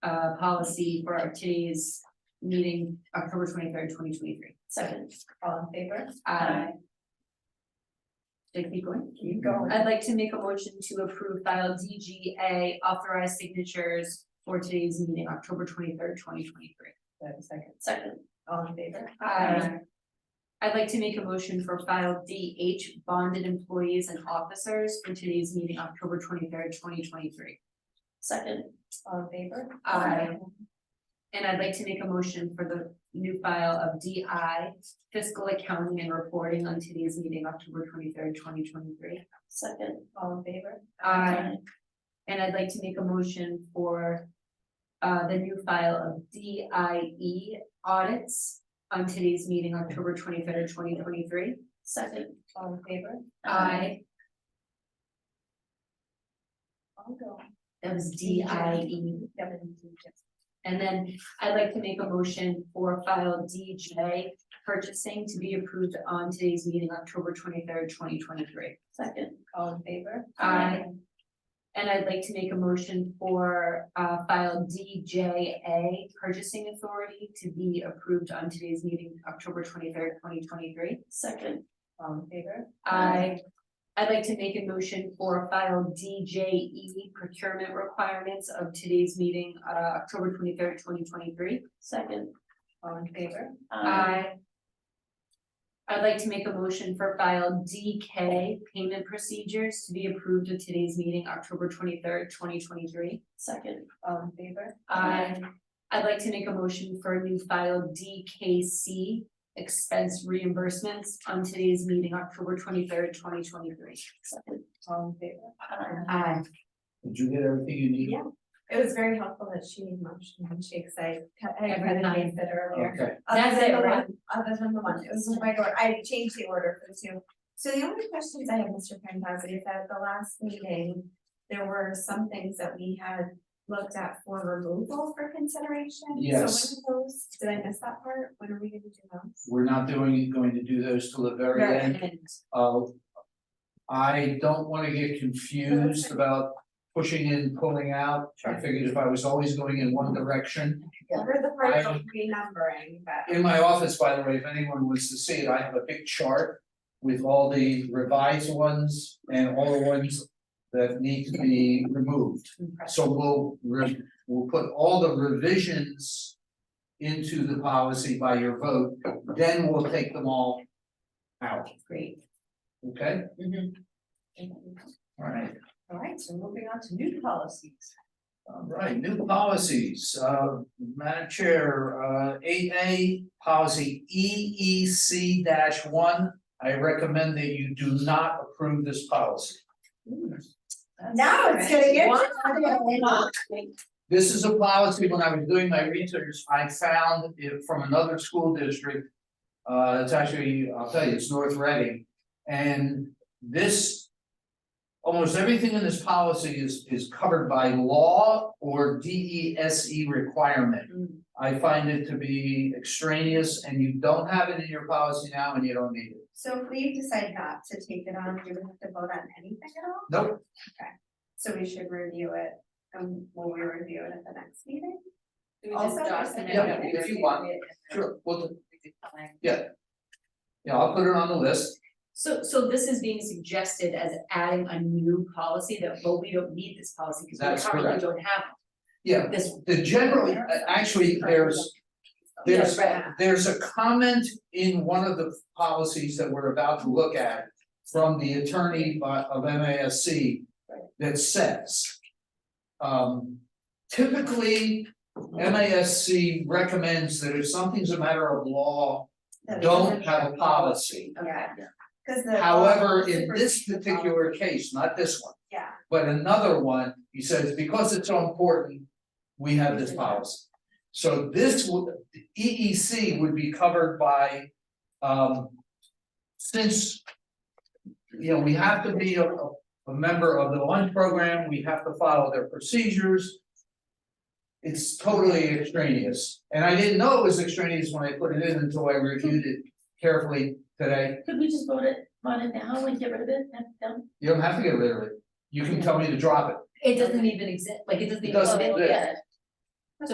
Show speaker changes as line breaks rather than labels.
the uh, policy for today's meeting, October twenty-third, twenty twenty-three.
Second, all in favor?
Aye. Did I keep going?
Keep going.
I'd like to make a motion to approve file DGA authorized signatures for today's meeting, October twenty-third, twenty twenty-three.
Do I have a Second, second, all in favor?
Aye. I'd like to make a motion for file DH bonded employees and officers for today's meeting, October twenty-third, twenty twenty-three.
Second, all in favor?
Aye. And I'd like to make a motion for the new file of DI fiscal accounting and reporting on today's meeting, October twenty-third, twenty twenty-three.
Second, all in favor?
Aye. And I'd like to make a motion for uh, the new file of DIE audits on today's meeting, October twenty-third, twenty twenty-three.
Second, all in favor? I'll go.
That was DIE. And then I'd like to make a motion for file DJ purchasing to be approved on today's meeting, October twenty-third, twenty twenty-three.
Second, all in favor?
Aye. And I'd like to make a motion for uh file DJA purchasing authority to be approved on today's meeting, October twenty-third, twenty twenty-three.
Second, all in favor?
I, I'd like to make a motion for file DJE procurement requirements of today's meeting, uh October twenty-third, twenty twenty-three.
Second, all in favor?
I. I'd like to make a motion for file DK payment procedures to be approved at today's meeting, October twenty-third, twenty twenty-three.
Second, all in favor?
I, Um, I'd like to make a motion for a new file DKC expense reimbursements on today's meeting, October twenty-third, twenty twenty-three. Uh,
Second, all in favor?
Aye.
Did you get everything you need?
Yeah. It was very helpful that she motioned and she excited, I
had Every time.
said earlier.
Okay,
Other
That's
than
it,
the
right?
one- Other than the one, it was my door, I changed the order for the two. So the only questions I have, Mr. Pankowski, is that at the last meeting, there were some things that we had looked at for removal for consideration.
Yes.
So when are those, did I miss that part? When are we gonna do those?
we're not doing, going to do those till the very end. Uh, I don't wanna get confused about pushing in, pulling out. I figured if I was always going in one direction.
We're the part
I-
of renumbering, but.
In my office, by the way, if anyone wants to see it, I have a big chart with all the revised ones and all the ones that need to be removed. So we'll, re- we'll put all the revisions into the policy by your vote, then we'll take them all out,
Great.
okay? All right,
All right, so moving on to new policies.
all right, new policies, uh, Madam Chair, uh, eight A, policy E E C one. I recommend that you do not approve this policy.
Now it's gonna get.
This is a policy, when I was doing my research, I found it from another school district. Uh, it's actually, I'll tell you, it's North Reading, and this. Almost everything in this policy is is covered by law or D E S E requirement. I find it to be extraneous and you don't have it in your policy now and you don't need it.
So if we decide not to take it on, do we have to vote on anything at all?
Nope,
So we should review it, um, when we review it at the next meeting?
We
Also,
just document it.
Yeah, if you want. sure, well, yeah, I'll put it on the list.
So, so this is being suggested as adding a new policy that, well, we don't need this policy because
That's
we currently
correct.
don't have
Yeah,
this.
the generally, uh, actually, there's. There's,
Yeah,
there's a comment in one of the policies that we're about to look at from the attorney by- of MASC that says. Um, typically, MASC recommends that if something's a matter of law, don't have a policy.
Yeah,
Okay.
cause the. um,
However, in this particular case, not this one,
Yeah,
but another one, he says, because it's so important, we have this policy. So this would, EEC would be covered by, um, since, you know, we have to be a, a- a member of the lunch program, we have to follow their procedures. It's totally extraneous, and I didn't know it was extraneous when I put it in until I reviewed it carefully today.
Could we just vote it, on it now and get rid of it, and done?
You don't have to get rid of it, you can tell me to drop it.
It doesn't even exist, like, it doesn't
It
even.
doesn't
Oh,
exist.
yeah.